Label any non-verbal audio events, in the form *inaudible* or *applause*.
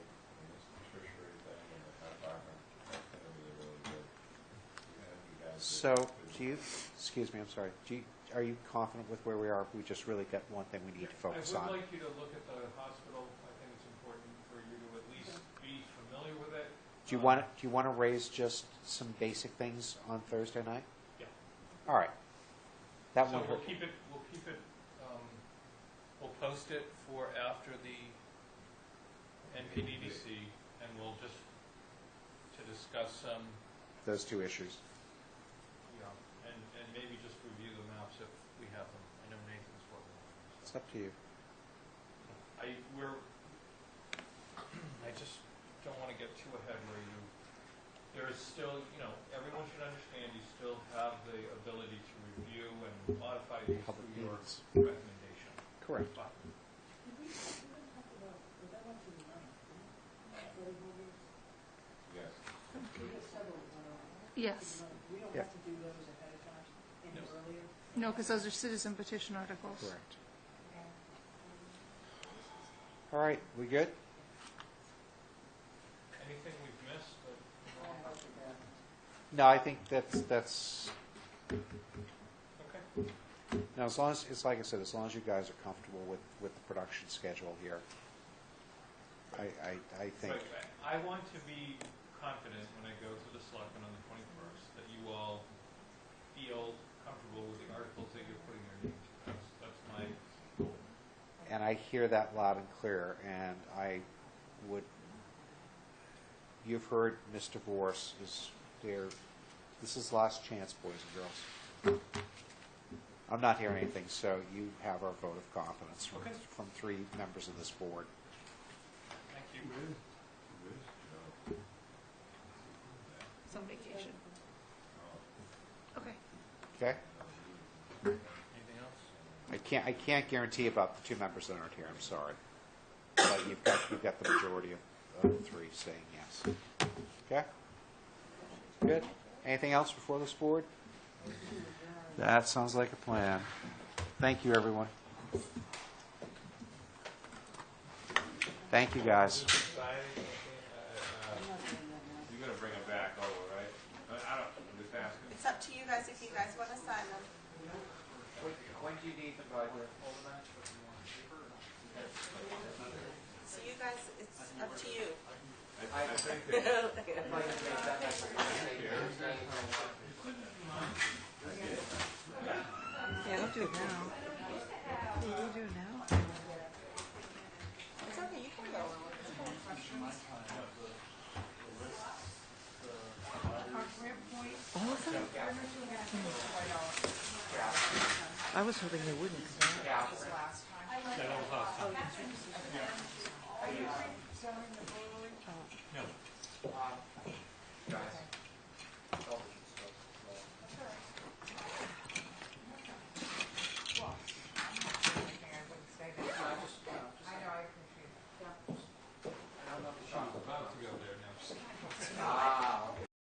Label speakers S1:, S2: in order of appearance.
S1: so, do you, excuse me, I'm sorry, do you, are you confident with where we are? We just really got one thing we need to focus
S2: I would
S1: on.
S2: like you to look at the hospital. I think it's important for you to at least be familiar with it.
S1: Do you
S2: Um,
S1: want, do you want to raise just some basic things on Thursday night?
S2: Yeah.
S1: All right. That
S2: So
S1: one,
S2: we'll keep it, we'll keep it, um, we'll post it for after the NPDDC, and we'll just, to discuss some,
S1: those two issues.
S2: you know, and, and maybe just review the maps if we have them. I know Nathan's working on them. so.
S1: It's up to you.
S2: I, we're, *clears throat* I just don't want to get too ahead where you, there is still, you know, everyone should understand you still have the ability to review and modify these
S1: Public
S2: through your
S1: meetings.
S2: recommendation.
S1: Correct.
S2: But
S3: Yes.
S4: Yes.
S5: We don't
S1: Yeah.
S5: have to do those ahead of time, any
S2: No.
S5: earlier?
S4: No, because those are citizen petition articles.
S1: Correct. All right, we good?
S2: anything we've missed, but,
S1: No, I think that's, that's,
S2: okay.
S1: now, as long as, it's like I said, as long as you guys are comfortable with, with the production schedule here, I, I, I think,
S2: But I I want to be confident when I go to the selectmen on the twenty-first, that you all feel comfortable with the articles that you're putting your name to. That's, that's my goal.
S1: and I hear that loud and clear, and I would, you've heard Ms. DeVore is there, this is last chance, boys and girls. I'm not hearing anything, so you have our vote of confidence from,
S2: Okay.
S1: from three members of this board.
S2: Thank you.
S4: It's on vacation. Okay.
S1: Okay?
S2: Anything else?
S1: I can't, I can't guarantee about the two members that aren't here, I'm sorry. But you've got, you've got the majority of, of the three saying yes. Okay? Good. Anything else before this board? That sounds like a plan. Thank you, everyone. Thank you, guys.
S3: You're gonna bring them back over, right? I I don't, I'm just asking.
S6: It's up to you guys if you guys want to sign them.
S7: When do you need the binder?
S6: So you guys, it's up to you.
S3: I, I think that
S7: I'd like to make that motion.
S5: Yeah, don't do it now. We'll do it now.
S6: It's okay, you can go.
S5: I was hoping they wouldn't. 'cause I-
S3: Guys,